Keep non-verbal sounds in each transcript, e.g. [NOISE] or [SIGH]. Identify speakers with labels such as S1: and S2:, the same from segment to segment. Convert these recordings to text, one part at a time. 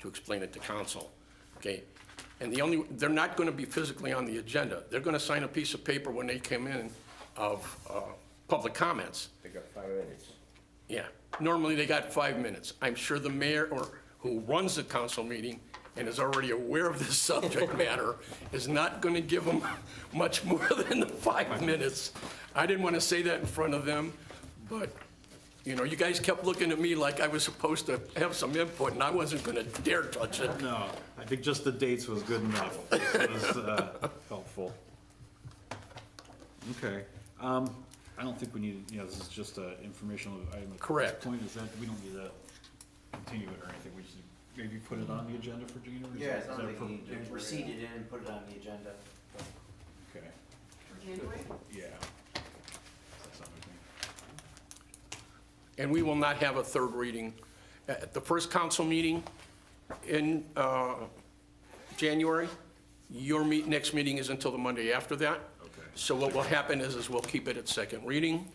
S1: to explain it to council, okay? And the only, they're not going to be physically on the agenda. They're going to sign a piece of paper when they come in of uh, public comments.
S2: They got five minutes.
S1: Yeah, normally they got five minutes. I'm sure the mayor or who runs the council meeting and is already aware of this [LAUGHS] subject matter is not going to give them much more [LAUGHS] than the five minutes. I didn't want to say that in front of them, but, you know, you guys kept looking at me like I was supposed to have some input and I wasn't going to dare touch it.
S3: No, I think just the dates was good enough. It was uh, helpful. Okay. um, I don't think we need, you know, this is just an informational item. at this
S1: Correct.
S3: Point is that we don't need to continue it or anything. We should maybe put it on the agenda for January? Is
S4: Yeah,
S3: that-
S4: it's
S3: is
S4: not
S3: that
S4: like
S3: for-
S4: you you receipt it in and put it on the agenda.
S3: Okay, yeah. That's everything.
S1: And we will not have a third reading. At the first council meeting in uh, January, your meet, next meeting is until the Monday after that.
S3: Okay.
S1: So what will happen is, is we'll keep it at second reading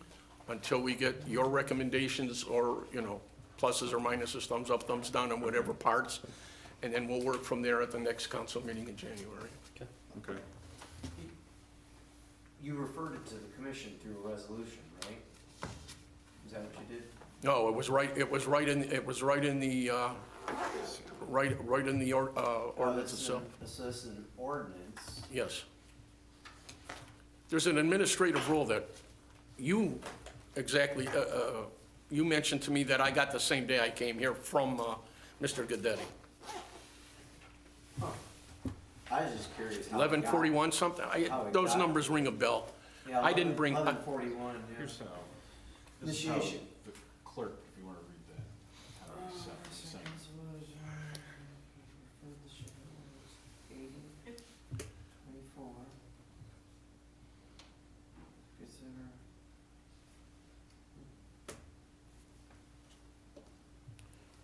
S1: until we get your recommendations or, you know, pluses or minuses, thumbs up, thumbs down, and whatever parts. And then we'll work from there at the next council meeting in January.
S3: Okay.
S4: You referred it to the commission through a resolution, right? Is that what you did?
S1: No, it was right, it was right in, it was right in the, uh, right, right in the or- uh, ordinance
S4: Oh, this is
S1: itself.
S4: an- This is an ordinance.
S1: Yes. There's an administrative rule that you exactly, uh, uh, you mentioned to me that I got the same day I came here from uh, Mr. Gaddetti.
S4: I was just curious. how it got-
S1: 1141 something,
S4: How
S1: I-
S4: it
S1: those
S4: got-
S1: numbers ring a bell.
S4: Yeah,
S1: I didn't bring, I-
S4: Eleven forty-one, yeah.
S3: Here's how. this is how
S4: Initiation.
S3: The clerk, if you want to read that. how it's set- set.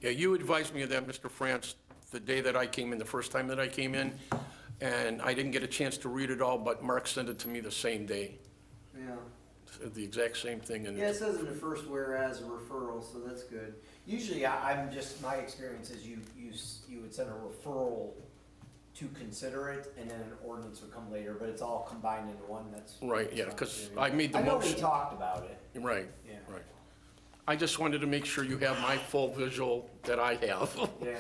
S1: yeah, you advised me of that, Mr. France, the day that I came in, the first time that I came in, and I didn't get a chance to read it all, but Mark sent it to me the same day,
S4: Yeah.
S1: said the exact same thing. and
S4: Yeah, it says in the first whereas a referral, so that's good. Usually, I, I'm just, my experience is you, you, s- you would send a referral to consider it, and then an ordinance would come later, but it's all combined into one, that's.
S1: Right, yeah, because I made the
S4: I know
S1: motion.
S4: we talked about it,
S1: Right,
S4: Yeah.
S1: right. I just wanted to make sure you have my full visual that I have. [LAUGHS]
S4: yeah.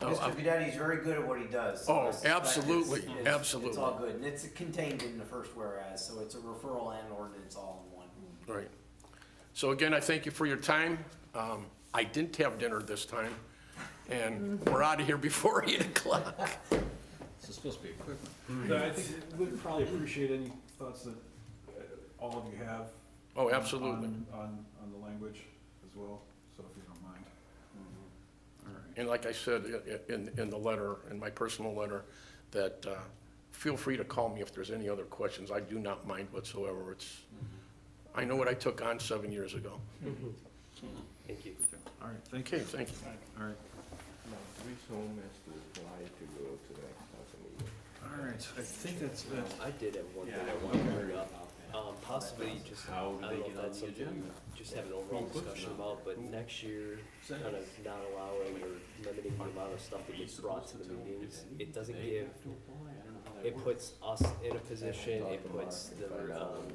S1: Oh,
S4: Mr.
S1: I'm-
S4: Gadetti's very good at what he does. so I
S1: Oh,
S4: suspect it's-
S1: absolutely,
S4: it's- It's
S1: absolutely.
S4: all good, and it's contained in the first whereas, so it's a referral and ordinance all in one.
S1: Right. So again, I thank you for your time. Um, I didn't have dinner this time, and we're out of here before [LAUGHS] 8 o'clock.
S3: This is supposed to be a quick one. I think we'd probably appreciate any thoughts that uh, all of you have.
S1: Oh, absolutely.
S3: on- On, on the language as well, so if you don't mind. All right.
S1: And like I said i- i- in, in the letter, in my personal letter, that uh, feel free to call me if there's any other questions. I do not mind whatsoever. It's, I know what I took on seven years ago.
S5: Thank you.
S3: All right, thank you.
S1: Okay, thank you.
S3: All right,
S2: Now, three home has to apply to go to the council meeting.
S3: all right, I think that's it.
S5: I did have one thing I wanted to bring up, um, possibly just, I don't know if that's something we just have an overall discussion about, but next year, kind of not allowing or limiting the amount of stuff that gets brought to the meetings, it doesn't give, it puts us in a position, it puts the, um,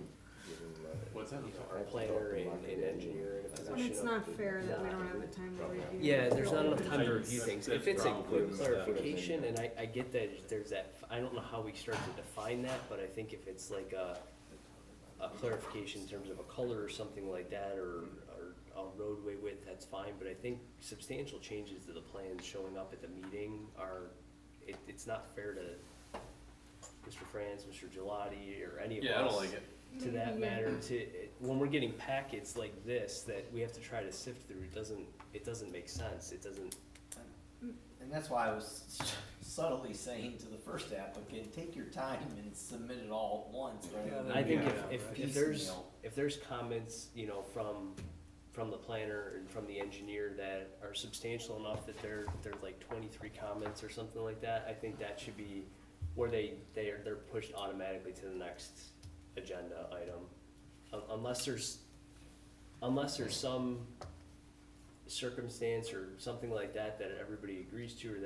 S2: What's
S5: you know, our planner and, and engineer in a
S6: And
S5: position
S6: it's
S5: of.
S6: not fair that we don't have the time to review.
S5: Yeah, there's not enough time to review things. If it's a quick clarification, and I, I get that there's that, I don't know how we start to define that, but I think if it's like a, a clarification in terms of a color or something like that, or, or a roadway width, that's fine, but I think substantial changes to the plans showing up at the meeting are, it, it's not fair to Mr. Franz, Mr. Gelati, or any of us.
S7: Yeah, I don't like it.
S5: To that matter, to, when we're getting packets like this that we have to try to sift through, it doesn't, it doesn't make sense, it doesn't,
S4: And that's why I was [LAUGHS] subtly saying to the first applicant, take your time and submit it all at once, rather than.
S5: I think
S4: you know,
S5: if, if, if there's,
S4: piecemeal.
S5: if there's comments, you know, from, from the planner and from the engineer that are substantial enough that they're, they're like twenty-three comments or something like that, I think that should be where they, they are, they're pushed automatically to the next agenda item. Un- Unless there's, unless there's some circumstance or something like that that everybody agrees to or that